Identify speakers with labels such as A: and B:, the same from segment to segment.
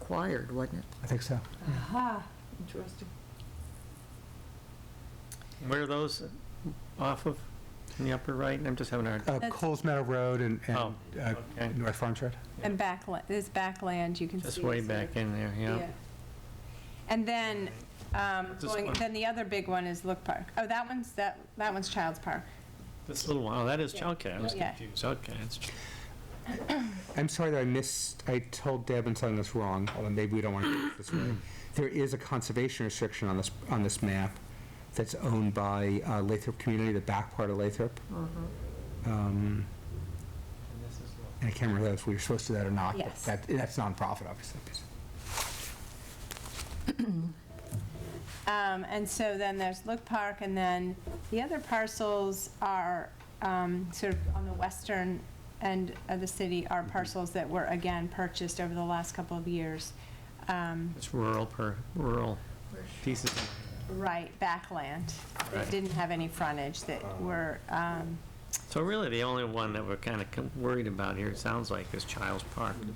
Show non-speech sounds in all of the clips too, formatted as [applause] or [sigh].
A: required, wasn't it?
B: I think so.
C: Aha, interesting.
D: Where are those off of, in the upper right? I'm just having a hard,
B: Uh,
E: That's-
B: Coles Meadow Road and,
D: Oh,
B: and uh,
D: okay.
B: North Farm Road.
E: And backland, there's backland, you can see.
D: just way
E: it's
D: back
E: like-
D: in there, yeah.
E: And then, um,
D: This
E: going,
D: one.
E: then the other big one is Look Park. Oh, that one's, that, that one's Child's Park.
D: This little one, oh, that is,
E: Yeah.
D: okay, I was
E: Yeah.
D: confused, okay. it's-
B: I'm sorry that I missed, I told Deb and something that's wrong, although maybe we don't want to do it this way. There is a conservation restriction on this, on this map that's owned by uh, Lathrop Community, the back part of Lathrop.
E: Mm-hmm.
B: Um, And I can't remember if we were supposed to do that or not. but
E: Yes.
B: That, that's nonprofit, obviously.
E: Um, and so then there's Look Park, and then the other parcels are, um, sort of on the western end of the city
D: Mm-hmm.
E: are parcels that were, again, purchased over the last couple of years. Um,
D: It's rural per, rural pieces.
E: right, backland, that
D: Right. Oh.
E: didn't have any frontage, that were, um,
D: So really, the only one that we're kind of worried about here, it sounds like, is Child's Park. And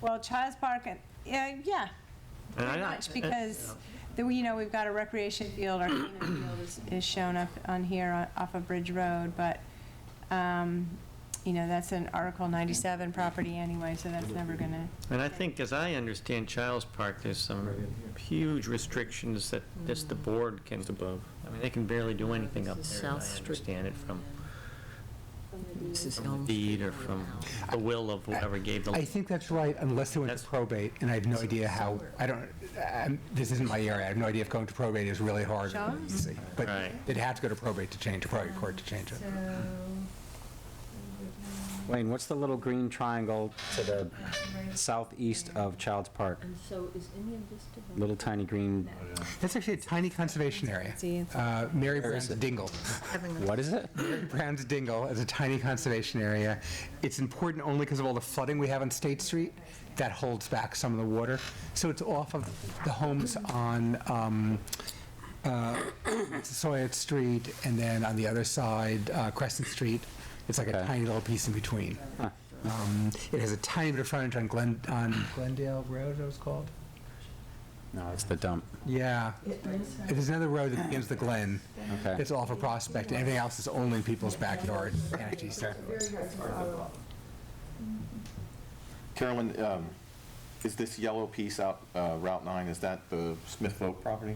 E: well, Child's Park, uh, yeah, yeah,
D: I
E: Pretty
D: don't-
E: much, because, the- you know, we've got a recreation field, our Keenan field is- is shown up on here on- off of Bridge Road, but, um, you know, that's an Article 97 property anyway, so that's never gonna,
D: And I think, as I understand Child's Park, there's some huge restrictions that just the board can. above. I mean, they can barely do anything up there,
A: This is
D: as I
A: South Street.
D: understand it from
A: This is
D: from
A: Elm
D: the deed
A: Street.
D: or from the will of whoever gave the.
B: I think that's right, unless they went to
D: That's-
B: probate, and I have no idea how, I don't, I'm- this isn't my area, I have no idea if going to probate is really hard. or
E: Sure.
B: easy. But
D: Right.
B: they'd have to go to probate to change, to probate court to change it.
F: Wayne, what's the little green triangle to the southeast of Child's Park?
G: And so is any of this developed?
F: Little tiny green,
B: That's actually a tiny conservation area.
E: See, it's-
B: Uh, Mary
F: Where is
B: Brown's
F: it?
B: Dingle.
A: Having a
F: what is it?
B: Mary Brown's Dingle is a tiny conservation area. It's important only because of all the flooding we have on State Street that holds back some of the water. So it's off of the homes on um, uh, Sawyer Street and then on the other side, uh, Crescent Street. It's like a
F: Okay.
B: tiny little piece in between. Um, It has a tiny bit of frontage on Glen, on Glendale Road, is that what it's called?
F: No, it's the dump.
B: Yeah. There's another road that begins the Glen.
F: Okay.
B: It's all for Prospect, and everything else is only in people's backyard. Energy stuff.
H: Carolyn, um, is this yellow piece out uh, Route 9, is that the Smith Vote property?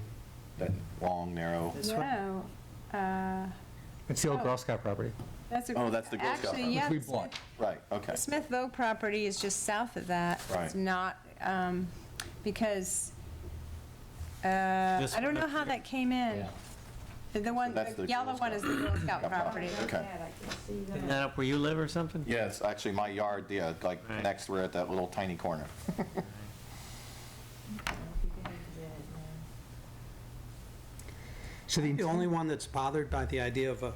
H: That long, narrow?
E: no, uh,
B: It's the old Girl Scout property.
E: that's a.
H: Oh, that's the Girl Scout
E: Actually,
H: property.
E: yeah,
B: We
E: the
B: bought.
H: Right, okay.
E: Smith Vogue property is just south of that. It's
H: Right.
E: not, um, because, uh,
D: This
E: I don't
D: one
E: know
D: up
E: how
D: here.
E: that came in. The one,
H: that's
E: the
H: the
E: yellow
H: Girl
E: one is the Girl Scout
H: Scout
E: property.
H: Okay.
D: Isn't that up where you live or something?
H: Yeah, it's actually my yard, yeah, like
D: Right.
H: next, we're at that little tiny corner.
B: So
I: The
B: the,
I: only one that's bothered by the idea of a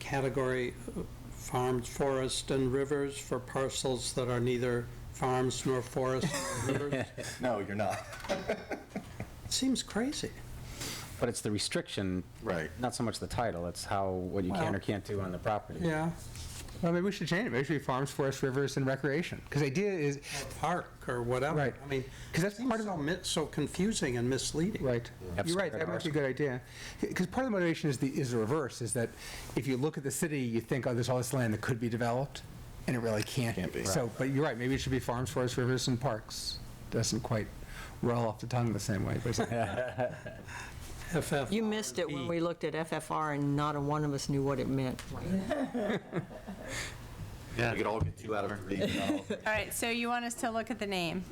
I: category of farms, forest, and rivers for parcels that are neither farms nor forests nor
A: [laughs]
I: rivers
H: No, you're not.
I: seems crazy.
F: But it's the restriction.
H: Right.
F: Not so much the title, it's how, what you can or
I: Well-
F: can't do on the property.
I: Yeah.
B: well, maybe we should change it. Maybe it should be farms, forests, rivers, and recreation. Because the idea is,
I: Park or whatever.
B: Right.
I: I mean,
B: 'Cause
I: because
B: that's
I: that's
B: part of-
I: so mi- so confusing and misleading.
B: right, you're right, that might be a good idea. Because part of the motivation is the, is the reverse, is that if you look at the city, you think, oh, there's all this land that could be developed, and it really can't.
H: Can't be.
B: So, but you're right, maybe it should be farms, forests, rivers, and parks. Doesn't quite roll off the tongue the same way, but it's-
I: FF.
A: You missed it when we looked at FFR and not a one of us knew what it meant.
H: We could all get two out of three.
E: All right, so you want us to look at the name?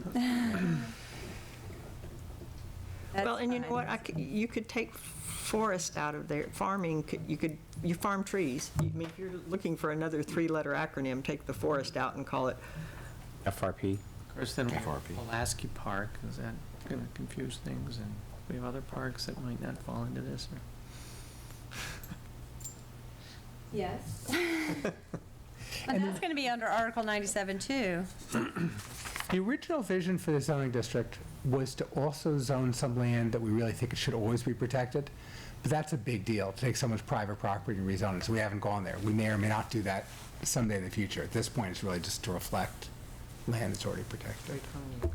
A: Well, and you know what, I c you could take forest out of there, farming, could- you could, you farm trees. I mean, if you're looking for another three-letter acronym, take the forest out and call it
F: FRP.
D: Of course, then
H: FRP.
D: Pulaski Park, is that going to confuse things? And we have other parks that might not fall into this, or?
E: Yes. And that's going to be under Article 97 too.
B: The original vision for the zoning district was to also zone some land that we really think it should always be protected, but that's a big deal, to take someone's private property and rezone it, so we haven't gone there. We may or may not do that someday in the future. At this point, it's really just to reflect land that's already protected.